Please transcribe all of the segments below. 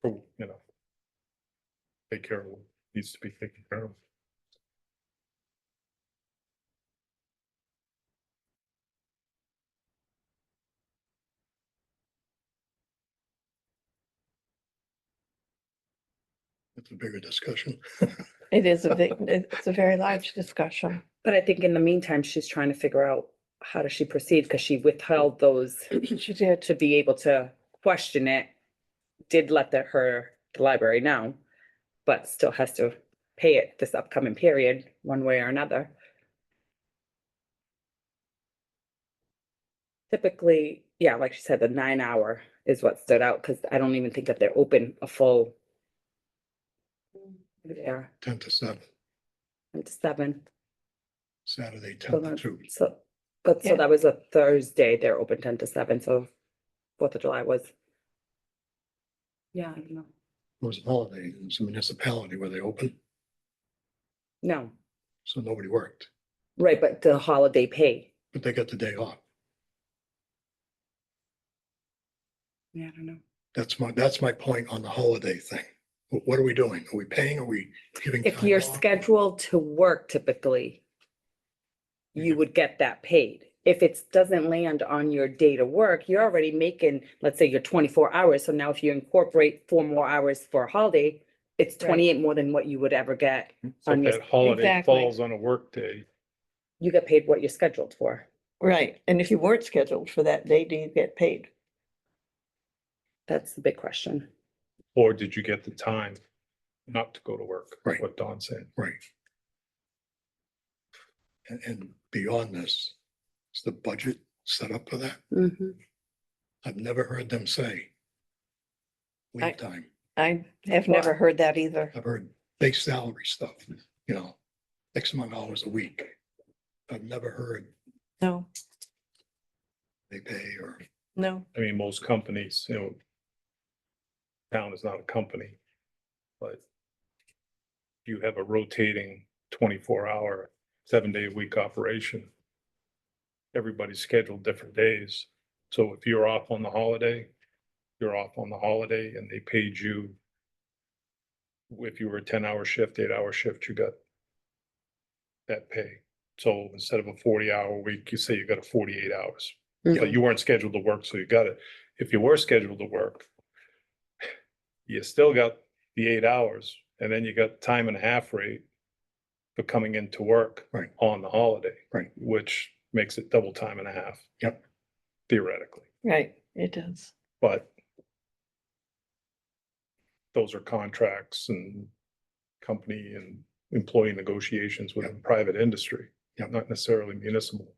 for, you know. Take care of what needs to be taken care of. It's a bigger discussion. It is a big, it's a very large discussion. But I think in the meantime, she's trying to figure out how does she proceed because she withheld those She did. to be able to question it. Did let the her, the library know, but still has to pay it this upcoming period, one way or another. Typically, yeah, like she said, the nine hour is what stood out because I don't even think that they're open a full. Yeah, Ten to seven, it's seven. Saturday, So ten to that- two. So, but Yeah. so that was a Thursday, they're open ten to seven, so Fourth of July was. Yeah, I don't know. It was a holiday. It's a municipality where they open, No, so nobody worked, right, but the holiday pay. but they got the day off. Yeah, I don't know. That's my, that's my point on the holiday thing. Wh- What are we doing? Are we paying? Are we giving? If time you're off? scheduled to work typically, You you get- would get that paid. If it doesn't land on your day to work, you're already making, let's say you're twenty-four hours, so now if you incorporate four more hours for a holiday, it's Right. twenty-eight more than what you would ever get. So On if your- that holiday Exactly. falls on a workday, You get paid what you're scheduled for. Right, and if you weren't scheduled for that day, do you get paid? That's the big question. or did you get the time not to go to work? Right. What Don said. Right. And, and beyond this, is the budget set up for that? Mm-hmm. I've never heard them say I- leave time. I have never heard that either. I've heard base salary stuff, you know, X amount of hours a week. I've never heard No, they pay or, no. I mean, most companies, you know. Town is not a company, but. You have a rotating twenty-four hour, seven-day-a-week operation. Everybody's scheduled different days, so if you're off on the holiday, you're off on the holiday and they paid you. If you were a ten-hour shift, eight-hour shift, you got. That pay, so instead of a forty-hour week, you say you got a forty-eight hours. But you weren't scheduled to work, so you got it. If you were scheduled to work, you still got the eight hours and then you got time and a half rate for coming into work Right. on the holiday. Right. Which makes it double time and a half. Yep. Theoretically, Right. It does. but those are contracts and company and employee negotiations within private industry, Yep. not necessarily municipal.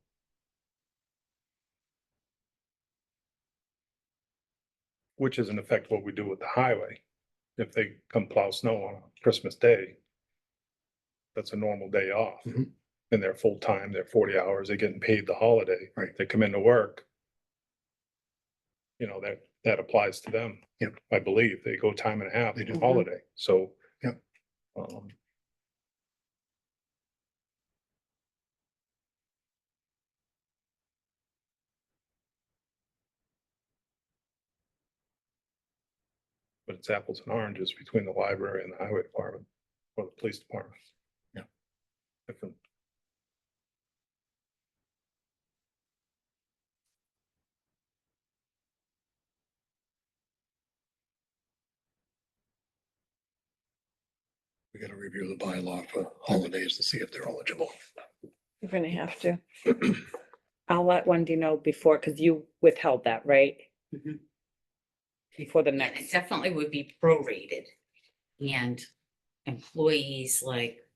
Which is in effect what we do with the highway. If they come plow snow on Christmas Day, that's a normal day off. Mhm. And they're full-time, they're forty hours, they're getting paid the holiday. Right. They come into work. You know, that, that applies to them. Yep. I believe they go time and a half, They do. on holiday, so. Yep. Um, But it's apples and oranges between the library and the highway department or the police department. Yeah. Different. we gotta review the bylaw for holidays to see if they're eligible. You're gonna have to. I'll let Wendy know before, because you withheld that, right? Mhm. Before the Yeah, next, it definitely would be prorated. And employees like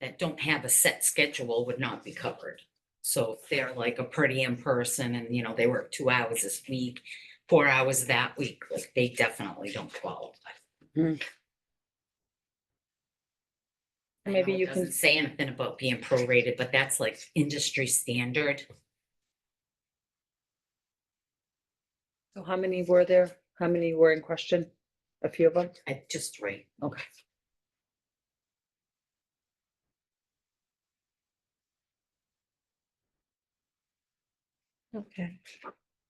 that don't have a set schedule would not be covered. So if they're like a per diem person and, you know, they work two hours this week, four hours that week, like they definitely don't qualify. I maybe know it you can, doesn't Say anything about being prorated, but that's like industry standard. so how many were there? How many were in question? A few of them? I just right. Okay. Okay.